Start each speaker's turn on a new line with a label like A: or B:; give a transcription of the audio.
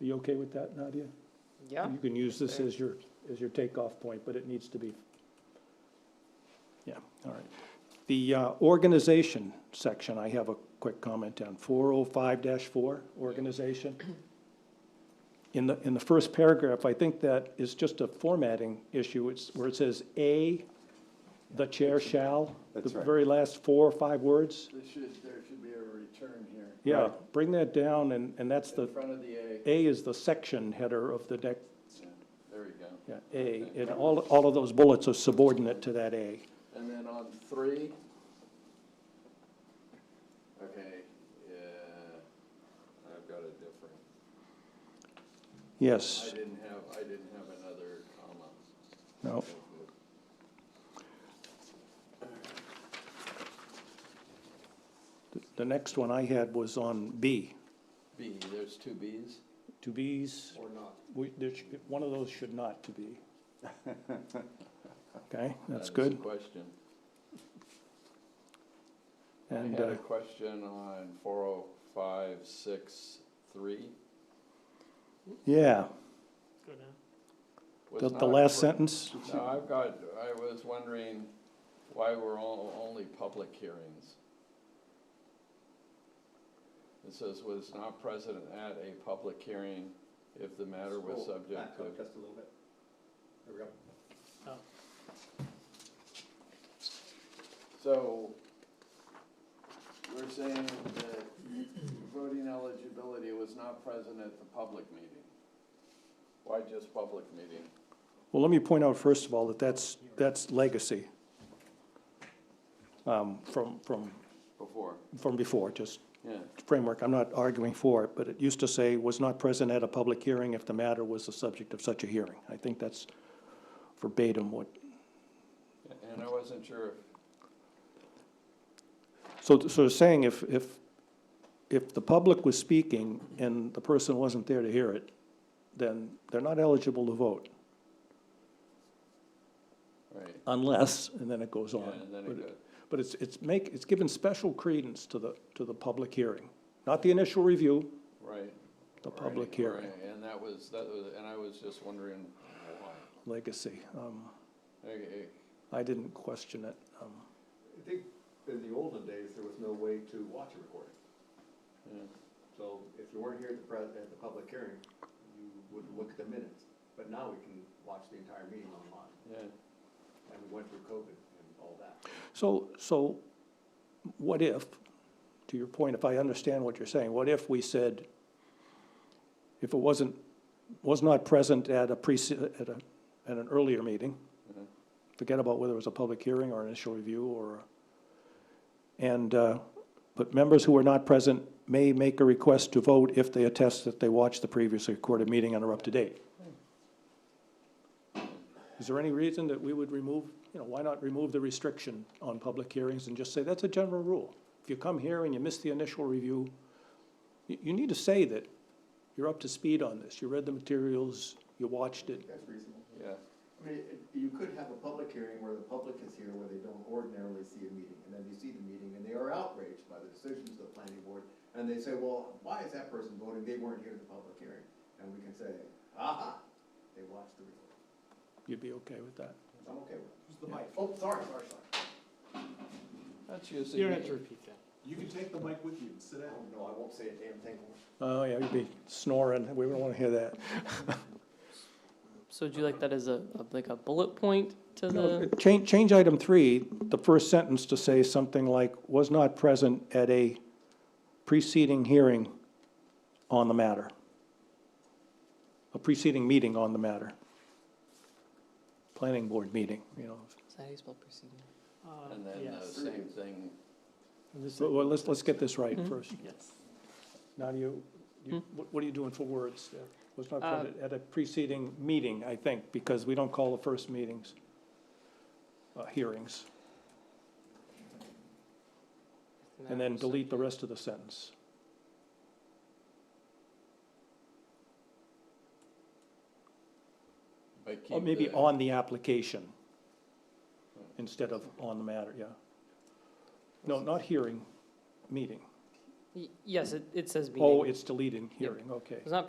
A: You okay with that, Nadia?
B: Yeah,
A: You can use this as your, as your takeoff point, but it needs to be. Yeah, all right. The uh, organization section, I have a quick comment on, four oh five four, organization. In the, in the first paragraph, I think that is just a formatting issue, it's where it says A, the chair shall.
C: That's
A: The
C: right.
A: very last four or five words,
D: There should, there should be a return here.
A: yeah, bring that down, and, and that's the,
D: In front of the A.
A: A is the section header of the deck,
D: Yeah, There we go.
A: Yeah, A, and all, all of those bullets are subordinate to that A.
D: And then on three. Okay, yeah, I've got a different, I
A: Yes,
D: didn't have, I didn't have another comma.
A: no, the next one I had was on B,
D: B, there's two Bs?
A: to Bs,
D: Or not.
A: we, there should, one of those should not to be. Okay, that's
D: That is a
A: good,
D: question. I
A: and,
D: had
A: uh,
D: a question on four oh five six three.
A: yeah,
D: Was
A: the, the
D: not
A: last
D: cor-
A: sentence,
D: No, I've got, I was wondering why we're all, only public hearings. It says was not present at a public hearing if the matter was
C: Scroll
D: subject
C: back up
D: to.
C: Just a little bit. There we go.
D: So, we're saying that voting eligibility was not present at the public meeting. Why just public meeting?
A: well, let me point out first of all that that's, that's legacy. Um, from, from,
D: Before.
A: from before, just
D: Yeah,
A: framework, I'm not arguing for it, but it used to say, was not present at a public hearing if the matter was the subject of such a hearing. I think that's verbatim what,
D: and I wasn't sure if
A: so, so saying if, if, if the public was speaking and the person wasn't there to hear it, then they're not eligible to vote
D: Right,
A: unless, and then it goes
D: yeah,
A: on.
D: and then
A: But
D: it goes,
A: But it's, it's make, it's given special credence to the, to the public hearing, not the initial review,
D: right.
A: the
D: right,
A: public hearing,
D: right, And that was, that was, and I was just wondering why.
A: legacy. Um,
D: Okay,
A: I didn't question it. Um,
C: I think in the olden days, there was no way to watch a recording.
D: yeah,
C: So if you weren't here at the pres, at the public hearing, you would look at the minutes. But now we can watch the entire meeting online,
D: yeah.
C: and we went through COVID and all that.
A: So, so what if, to your point, if I understand what you're saying, what if we said, if it wasn't, was not present at a pre, at a, at an earlier meeting,
D: Mhm.
A: forget about whether it was a public hearing or initial review or, and, uh, but members who were not present may make a request to vote if they attest that they watched the previously recorded meeting and are up to date. Is there any reason that we would remove, you know, why not remove the restriction on public hearings and just say, that's a general rule? If you come here and you miss the initial review, you, you need to say that you're up to speed on this, you read the materials, you watched it.
C: That's reasonable.
D: Yeah,
C: I mean, it- you could have a public hearing where the public is here, where they don't ordinarily see a meeting, and then you see the meeting, and they are outraged by the decisions of the planning board, and they say, well, why is that person voting, they weren't here at the public hearing, and we can say, aha, they watched the recording,
A: You'd be okay with that?
C: I'm okay with it. the mic? Oh, sorry, sorry, sorry.
D: that's
E: You
D: usually.
E: don't
D: me.
E: have to repeat that.
F: You can take the mic with you and sit down.
C: Oh, no, I won't say a damn thing
A: Oh,
C: more.
A: yeah, you'd be snoring, we don't wanna hear that.
B: so would you like that as a, a- like a bullet point to the,
A: Change, change item three, the first sentence to say something like, was not present at a preceding hearing on the matter. A preceding meeting on the matter. Planning board meeting, you know.
B: is that how you spell proceeding?
E: Uh,
D: And then the
E: yes.
D: same thing,
E: This-
A: Well, well, let's, let's get this right
B: Mm-hmm.
A: first.
E: Yes.
A: Nadia, you, you- what, what are you doing for words there? Was not
B: Uh,
A: present at a preceding meeting, I think, because we don't call the first meetings, uh, hearings. And then delete the rest of the sentence.
D: but keep.
A: Or maybe
D: the-
A: on the application instead of on the matter, yeah. No, not hearing, meeting.
B: Y- Yes, it, it says meeting.
A: Oh, it's deleting hearing, okay.
B: It's not